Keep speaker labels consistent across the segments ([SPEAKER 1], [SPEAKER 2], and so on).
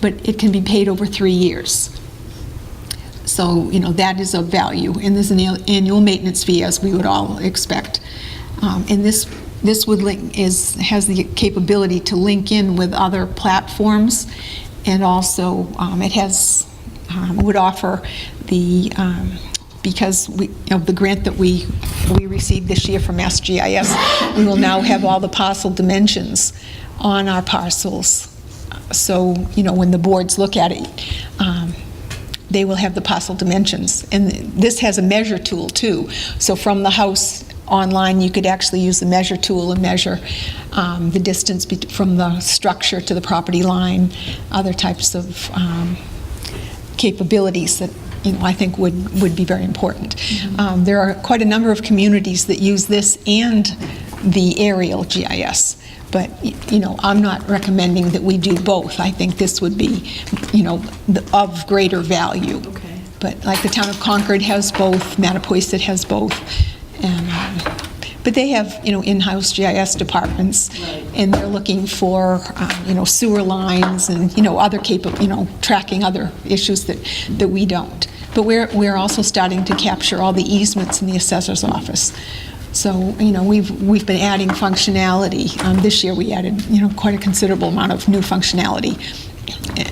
[SPEAKER 1] but it can be paid over three years. So, you know, that is of value, and there's an annu- annual maintenance fee, as we would all expect. Um, And this, this would link, is, has the capability to link in with other platforms, and also, um, it has, um, would offer the, um, because we, of the grant that we, we received this year from SGIS, we will now have all the parcel dimensions on our parcels. So, you know, when the boards look at it, um, they will have the parcel dimensions. And this has a measure tool, too. So from the house online, you could actually use the measure tool and measure um, the distance bet- from the structure to the property line, other types of um, capabilities that, you know, I think would, would be very important. Um, There are quite a number of communities that use this and the aerial GIS, but, y- you know, I'm not recommending that we do both. I think this would be, you know, the- of greater value.
[SPEAKER 2] Okay.
[SPEAKER 1] But like the town of Concord has both, Mattapoisett has both, and, um, but they have, you know, in-house GIS departments, and they're looking for, um, you know, sewer lines and, you know, other capa, you know, tracking other issues that, that we don't. But we're, we're also starting to capture all the easements in the assessor's office. So, you know, we've, we've been adding functionality. Um, This year, we added, you know, quite a considerable amount of new functionality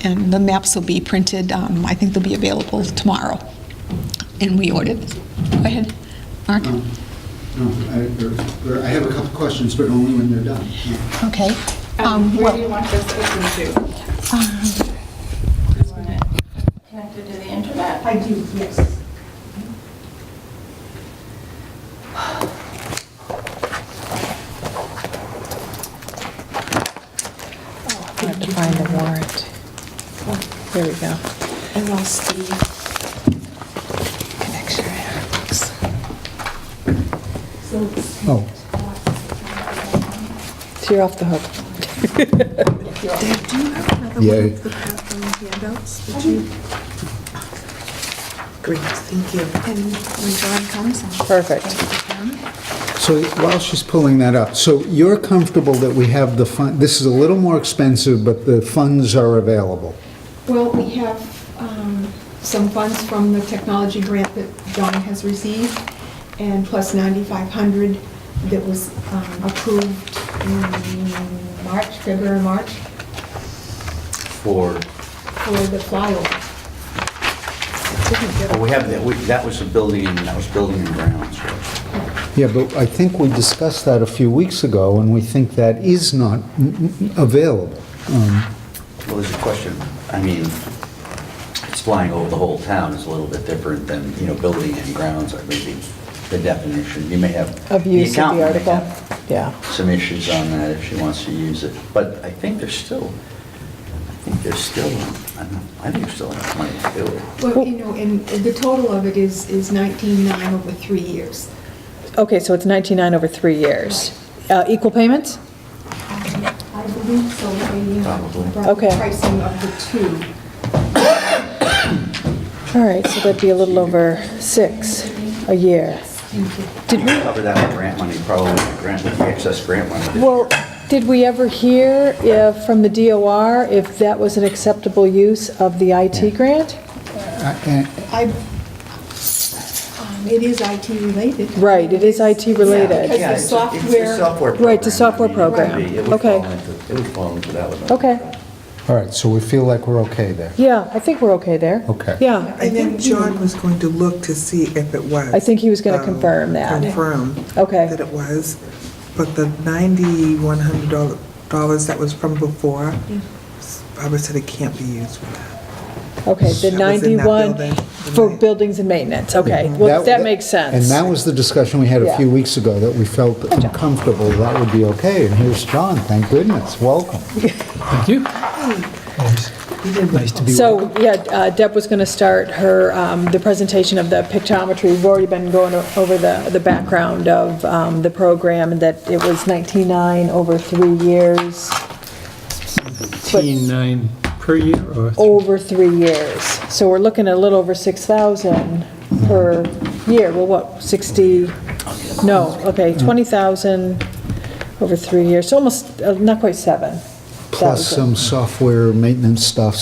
[SPEAKER 1] and the maps will be printed, um, I think they'll be available tomorrow. And we ordered, go ahead, Mark.
[SPEAKER 3] No, no, I, or- or I have a couple questions, but only when they're done.
[SPEAKER 1] Okay.
[SPEAKER 2] Um,
[SPEAKER 1] Um,
[SPEAKER 2] Where do you
[SPEAKER 1] Well,
[SPEAKER 2] want this open to?
[SPEAKER 4] Do you want it Connected to the internet?
[SPEAKER 5] I do, yes.
[SPEAKER 6] I have to find the warrant.
[SPEAKER 1] Oh,
[SPEAKER 6] There we go.
[SPEAKER 2] I lost the connection.
[SPEAKER 3] Oh.
[SPEAKER 6] So you're off the hook.
[SPEAKER 2] Deb, do you have another one
[SPEAKER 3] Yay.
[SPEAKER 2] of the um, handouts that you? Great, thank you. And when John comes, I'll
[SPEAKER 6] Perfect.
[SPEAKER 2] give it to him.
[SPEAKER 3] So while she's pulling that up, so you're comfortable that we have the fund, this is a little more expensive, but the funds are available?
[SPEAKER 5] Well, we have um, some funds from the technology grant that John has received, and plus 9,500 that was um, approved in March, February, March,
[SPEAKER 7] for,
[SPEAKER 5] for the flyover.
[SPEAKER 7] well, we have, that we- that was a building, that was building and grounds, right?
[SPEAKER 3] Yeah, but I think we discussed that a few weeks ago, and we think that is not mm, mm, available.
[SPEAKER 7] Well, there's a question, I mean, it's flying over the whole town is a little bit different than, you know, building and grounds are maybe the definition. You may have.
[SPEAKER 6] Of use of
[SPEAKER 7] accountant
[SPEAKER 6] the
[SPEAKER 7] may
[SPEAKER 6] article?
[SPEAKER 7] have
[SPEAKER 6] Yeah.
[SPEAKER 7] Some issues on that if she wants to use it, but I think there's still, I think there's still, I don't know, I think there's still enough money to do it.
[SPEAKER 5] Well, you know, and the total of it is, is 19,900 over three years.
[SPEAKER 6] Okay, so it's 99 over three years. Uh, Equal payments?
[SPEAKER 5] I believe so, they
[SPEAKER 7] Probably.
[SPEAKER 5] brought the
[SPEAKER 6] Okay.
[SPEAKER 5] pricing of the two.
[SPEAKER 6] All right, so that'd be a little over six a year. Did we,
[SPEAKER 7] Cover that with grant money, probably with grant, with the excess grant money.
[SPEAKER 6] well, did we ever hear if, from the DOR if that was an acceptable use of the IT grant?
[SPEAKER 5] I, um, it is IT related.
[SPEAKER 6] Right, it is IT
[SPEAKER 5] because
[SPEAKER 6] related.
[SPEAKER 7] Yeah,
[SPEAKER 5] the
[SPEAKER 7] it's a- it's a
[SPEAKER 5] software-
[SPEAKER 7] software
[SPEAKER 6] Right, the software
[SPEAKER 7] program. I mean, it
[SPEAKER 6] program.
[SPEAKER 7] would
[SPEAKER 6] Okay.
[SPEAKER 7] fall into- It would fall into that one.
[SPEAKER 6] Okay.
[SPEAKER 3] All right, so we feel like we're okay there.
[SPEAKER 6] Yeah, I think we're okay there.
[SPEAKER 3] Okay.
[SPEAKER 6] Yeah,
[SPEAKER 8] I think John was going to look to see if it was.
[SPEAKER 6] I think he was gonna
[SPEAKER 8] um,
[SPEAKER 6] confirm that.
[SPEAKER 8] Confirm
[SPEAKER 6] okay.
[SPEAKER 8] that it was, but the ninety-one hundred dollar- dollars that was from before,
[SPEAKER 6] Mm.
[SPEAKER 8] Barbara said it can't be used for that.
[SPEAKER 6] Okay,
[SPEAKER 8] That was
[SPEAKER 6] the
[SPEAKER 8] in that
[SPEAKER 6] 91
[SPEAKER 8] building,
[SPEAKER 6] for
[SPEAKER 8] right.
[SPEAKER 6] buildings and maintenance, okay. Well, that makes sense.
[SPEAKER 3] And that was the discussion we had a
[SPEAKER 6] Yeah.
[SPEAKER 3] few weeks ago, that we felt comfortable that would be okay. And here's John, thank goodness, welcome.
[SPEAKER 9] Thank you. Always Nice to be with
[SPEAKER 6] So, yeah, uh, Deb was going to start her, um, the presentation of the pictometry. We've already been going o- over the, the background of um, the program, and that it was 19.9 over three years,
[SPEAKER 9] 18.9 per year or
[SPEAKER 6] over three years. So we're looking at a little over 6,000 per year. Well, what, 60, no, okay, 20,000 over three years, so almost, uh, not quite seven.
[SPEAKER 3] Plus
[SPEAKER 6] thousand.
[SPEAKER 3] some software maintenance stuff,